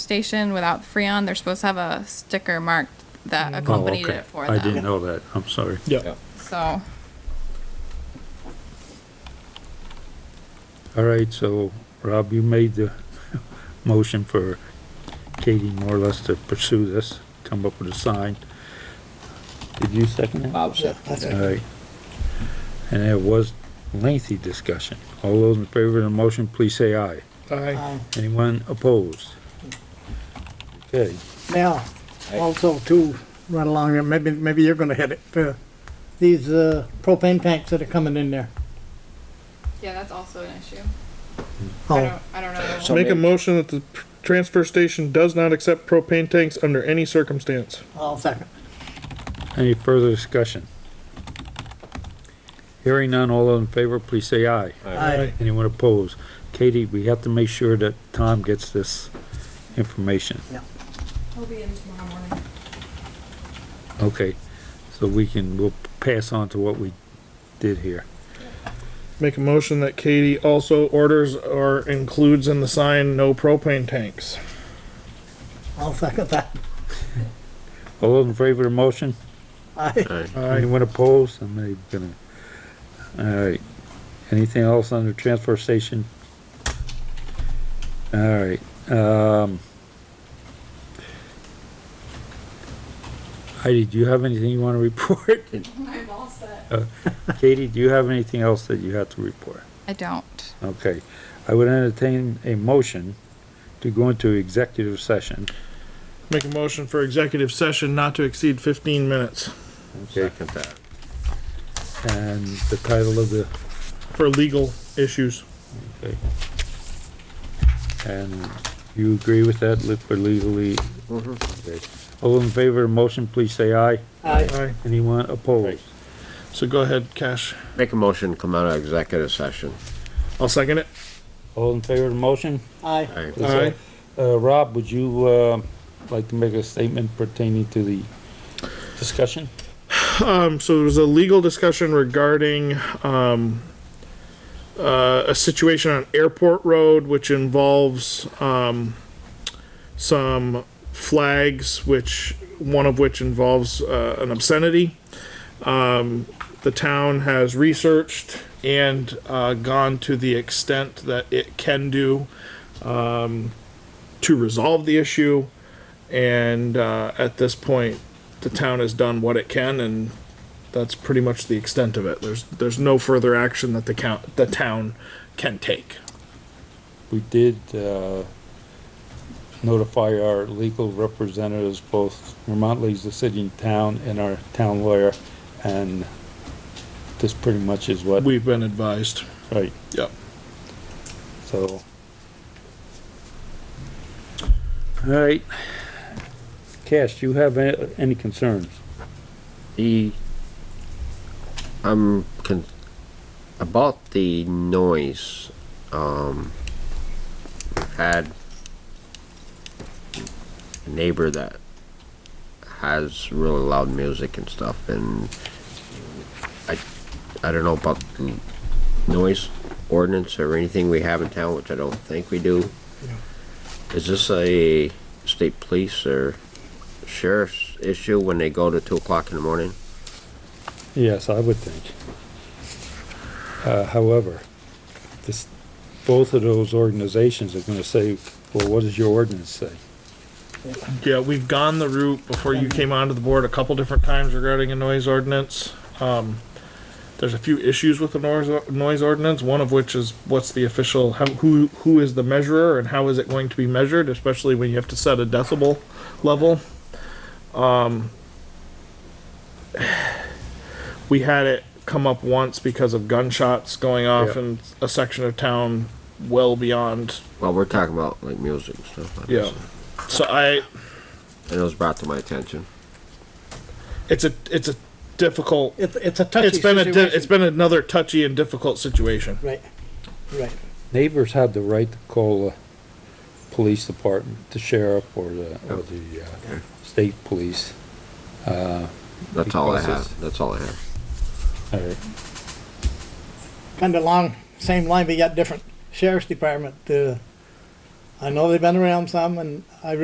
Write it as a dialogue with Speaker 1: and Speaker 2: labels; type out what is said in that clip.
Speaker 1: station without Freon, they're supposed to have a sticker marked that
Speaker 2: Oh,
Speaker 1: accompanied
Speaker 2: okay.
Speaker 1: it for
Speaker 2: I didn't
Speaker 1: them,
Speaker 2: know that, I'm sorry.
Speaker 3: Yeah.
Speaker 1: so.
Speaker 2: All right, so Rob, you made the motion for Katie more or less to pursue this, come up with a sign. Did you second it?
Speaker 3: Bob said.
Speaker 4: That's
Speaker 2: All
Speaker 4: right.
Speaker 2: right. And it was lengthy discussion. All those in favor of the motion, please say aye.
Speaker 4: Um,
Speaker 2: Anyone opposed? Okay,
Speaker 4: Now, also too, right along there, maybe, maybe you're gonna hit it, uh, these, uh, propane tanks that are coming in there.
Speaker 1: Yeah, that's also an issue. I
Speaker 4: Oh,
Speaker 1: don't, I don't know.
Speaker 3: So
Speaker 5: Make a
Speaker 3: maybe-
Speaker 5: motion that the p- transfer station does not accept propane tanks under any circumstance.
Speaker 4: I'll second.
Speaker 2: any further discussion? Hearing none, all those in favor, please say aye.
Speaker 4: Aye.
Speaker 2: Anyone opposed? Katie, we have to make sure that Tom gets this information.
Speaker 1: He'll be in tomorrow morning.
Speaker 2: Okay, so we can, we'll pass on to what we did here.
Speaker 5: Make a motion that Katie also orders or includes in the sign no propane tanks.
Speaker 4: I'll second that.
Speaker 2: All those in favor of the motion?
Speaker 4: Aye.
Speaker 2: Anyone opposed? I'm not even gonna, alright. Anything else under transfer station? Alright, um. Heidi, do you have anything you wanna report?
Speaker 1: I'm all set.
Speaker 2: Katie, do you have anything else that you have to report?
Speaker 1: I don't.
Speaker 2: Okay, I would entertain a motion to go into executive session.
Speaker 5: Make a motion for executive session not to exceed fifteen minutes
Speaker 2: Second that. And the title of the,
Speaker 5: for legal issues.
Speaker 2: and you agree with that, live for legally? Okay. All in favor of the motion, please say aye.
Speaker 4: Aye.
Speaker 5: Aye.
Speaker 2: Anyone opposed?
Speaker 5: So go ahead, Cash.
Speaker 3: Make a motion, come out of executive session.
Speaker 5: I'll second it.
Speaker 2: All in favor of the motion?
Speaker 4: Aye.
Speaker 3: Aye.
Speaker 2: Is that- Uh, Rob, would you, uh, like to make a statement pertaining to the discussion?
Speaker 5: Um, so there was a legal discussion regarding, um, uh, a situation on Airport Road, which involves, um, some flags, which, one of which involves, uh, an obscenity. Um, the town has researched and, uh, gone to the extent that it can do, um, to resolve the issue. And, uh, at this point, the town has done what it can and that's pretty much the extent of it. There's there's no further action that the count the town can take.
Speaker 2: We did, uh, notify our legal representatives, both Vermont League's the city and town, and our town lawyer, and this pretty much is what,
Speaker 5: We've been advised.
Speaker 2: right,
Speaker 5: Yep.
Speaker 2: so. All right. Cash, do you have a- any concerns?
Speaker 6: The, I'm con- about the noise, um, had a neighbor that has really loud music and stuff and I, I don't know about the noise ordinance or anything we have in town, which I don't think we do. Is this a state police or sheriff's issue when they go to two o'clock in the morning?
Speaker 2: Yes, I would think. Uh, however, this, both of those organizations are gonna say, well, what does your ordinance say?
Speaker 5: Yeah, we've gone the route before you came onto the board a couple different times regarding a noise ordinance. Um, there's a few issues with the noise noise ordinance. One of which is what's the official how, who who is the measurer and how is it going to be measured, especially when you have to set a decibel level. Um, we had it come up once because of gunshots going off
Speaker 2: Yeah.
Speaker 5: in a section of town well beyond
Speaker 6: Well, we're talking about like music and stuff. like
Speaker 5: yeah.
Speaker 6: this,
Speaker 5: So I
Speaker 6: And it was brought to my attention.
Speaker 5: it's a it's a difficult
Speaker 4: It's, it's a touchy
Speaker 5: it's been a di-
Speaker 4: situation.
Speaker 5: it's been another touchy and difficult situation
Speaker 4: Right, right.
Speaker 2: neighbors have the right to call the police department, the sheriff or the, or the, uh, state police.
Speaker 6: That's all I
Speaker 2: Because it's-
Speaker 6: have. That's all I have.
Speaker 2: Alright,
Speaker 4: Kinda along, same line, but yet different. Sheriff's Department, uh, I know they've been around some, and I